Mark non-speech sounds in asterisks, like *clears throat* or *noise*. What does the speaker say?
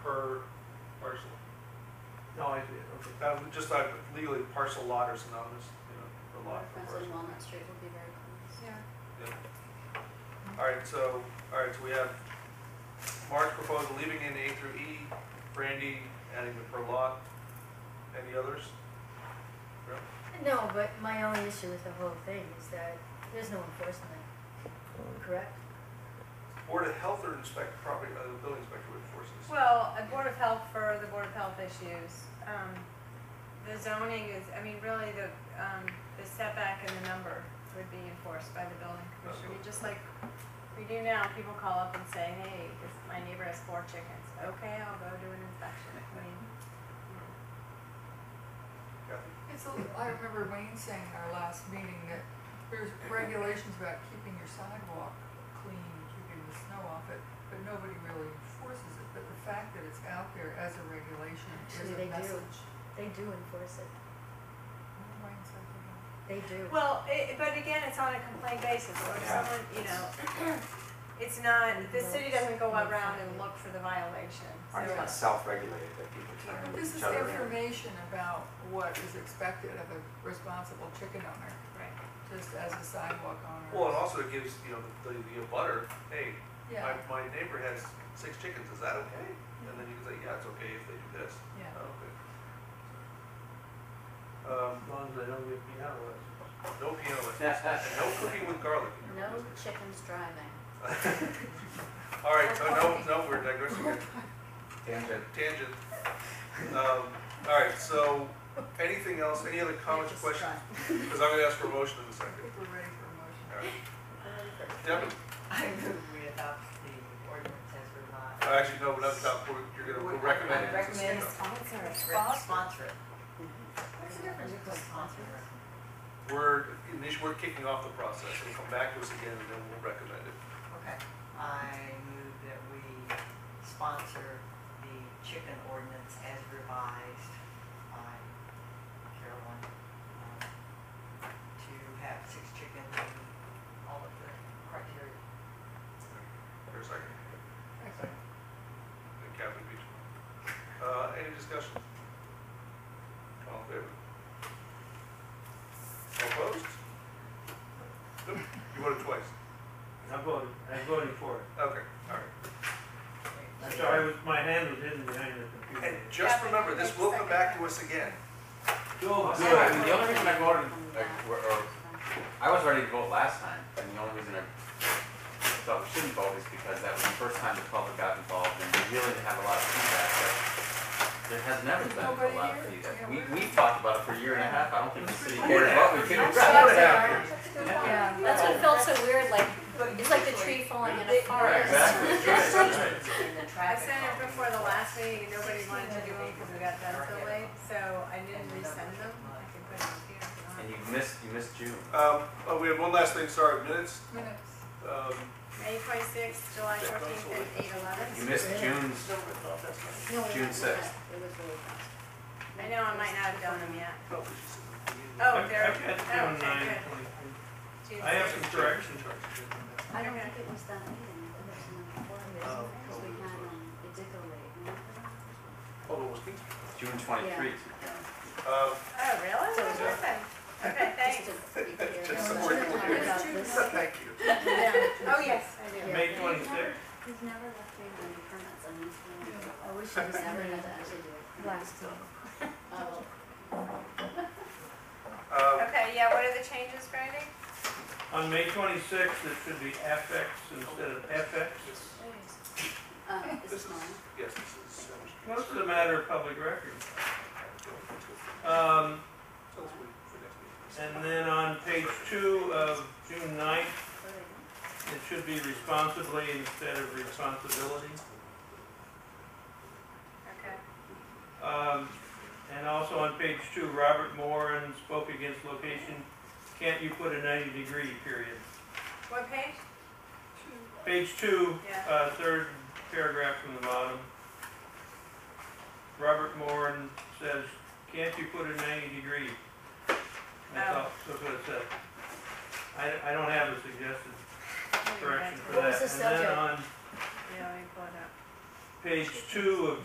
uh, just like legally parcel lot or synonymous, you know, for lot for Perhaps parcel. on Walnut Street will be very close. Yeah. Yeah. All right, so, all right, so we have Mark's proposal, leaving in A through E, Brandy adding the per lot. Any others? No, but my only issue with the whole thing is that there's no enforcement, correct? Board of Health or inspect property, uh, the building inspector would enforce this. Well, Oh, a Board of Health for the Board of Health issues. Um, The zoning is, I mean, really, the, um, the setback and the number would be enforced by the building commissioner. I mean, Just like we do now, people call up and say, hey, this, my neighbor has four chickens. Okay, I'll go do an inspection. I mean, Kathy? It's, a- I remember Wayne saying at our last meeting that there's regulations about keeping your sidewalk clean, keeping the snow off it, but nobody really enforces it. But the fact that it's out there as a regulation is Actually, a they do. message. They do enforce it, Remember Wayne said that? they do. Well, it, but again, it's on a complaint basis, or if Yeah. someone, you know, *clears throat* it's not, the city doesn't go around and look for the violation. Aren't So- kind of self-regulated that people turn This with is each other? in. information about what is expected of a responsible chicken owner, Right. just as a sidewalk owner. Well, it also gives, you know, the, the butter, hey, my, Yeah, my neighbor has six chickens, is that okay? And then you can say, yeah, it's okay if they do this. yeah. Oh, okay. Um, As long as they don't get piano lessons. no piano lessons, and no cooking with garlic in your No business. *laughs* chickens driving. *laughs* All right, so no, no, we're digressing here. Tangent. tangent. Um, all right, so anything else, any other comments, or Just questions? drive. Because I'm gonna ask for a motion in a I second. think we're ready for a motion. All right. Devin, I move we adopt the ordinance as revised. oh, actually, no, we're not about, you're gonna recommend it. Recommend Sponsor. Re- Sponsor it. What's the difference between sponsor and recommend? We're, initially, we're kicking off the process, it'll come back to us again, and then we'll recommend it. Okay, I move that we sponsor the chicken ordinance as revised by Carolyn. um, To have six chickens and all of the criteria. For a second, Okay. and Captain Beach. Uh, any discussion? All in favor? All Opposed? Nope, you voted twice. I'm voting, I'm voting for it. Okay, all right. I'm sorry, I was, my hand was hidden behind the And computer. just remember, this will come back to us again. Go, Yeah, I mean, the only reason I voted, From like, that. or, or, I was ready to vote last time, and the only reason I thought we shouldn't vote is because that was the first time the public got involved, and we really didn't have a lot of feedback, but there has never been a Nobody lot here? of feedback. Yeah, We, we're- we talked about it for a year and a half, I don't think the city Oh, cared yeah. what we I'm did. sorry. Yeah. That's what felt so weird, like, But it's like the tree falling in a They- forest. Exactly, right, *laughs* right. And the I traffic. sent it calming. before the last meeting, and nobody wanted to do them because we got done so late, so I didn't resend them. I can put them here if you want. And you missed, you missed June. Um, oh, we have one last thing, sorry, minutes. Minutes. Um, May twenty-sixth, July fourteenth, and eight eleven. You missed June's, No, No, it June was- sixth. It was really fast. I know I might not have done them yet. oh, we should sit down. Oh, I've- there, I've got oh, June 9, okay, 23. good. I have Tuesday. some corrections. I don't Okay. think it was that meeting, it was in the forum, Oh, because we oh, had, sorry. um, it did go late, remember that? Hold on, what's *laughs* King's? June twenty-three. Um, Oh, really? So- What happened? Okay, thanks. Just to be clear. Just No, so we're no, no, clear. about this. thank you. Oh, yes, I do. Uh, May twenty-sixth. He's never left me with any permits, I'm just gonna- I I wish it was was *laughs* never there had to actually do it. last time. *laughs* Oh, Um, Okay, yeah, what are the changes, Brandy? uh, On May twenty-sixth, it should be FX instead of FX. this- um, is This this is, mine? yes, this is. Sam Street. Most of the matter of public record. So Um, let's wait for next meeting. and then on page two of June 9th, it should be responsibly instead of responsibility. Okay. Um, and also on page two, Robert Moran spoke against location. Can't you put a ninety degree period? What page? Page two, Yeah. uh, third paragraph from the bottom. Robert Moran says, can't you put a ninety degree? That's all, that's what it says. I, I don't have a suggested correction for that. What was the subject? And then on Yeah, let me pull it up. page two of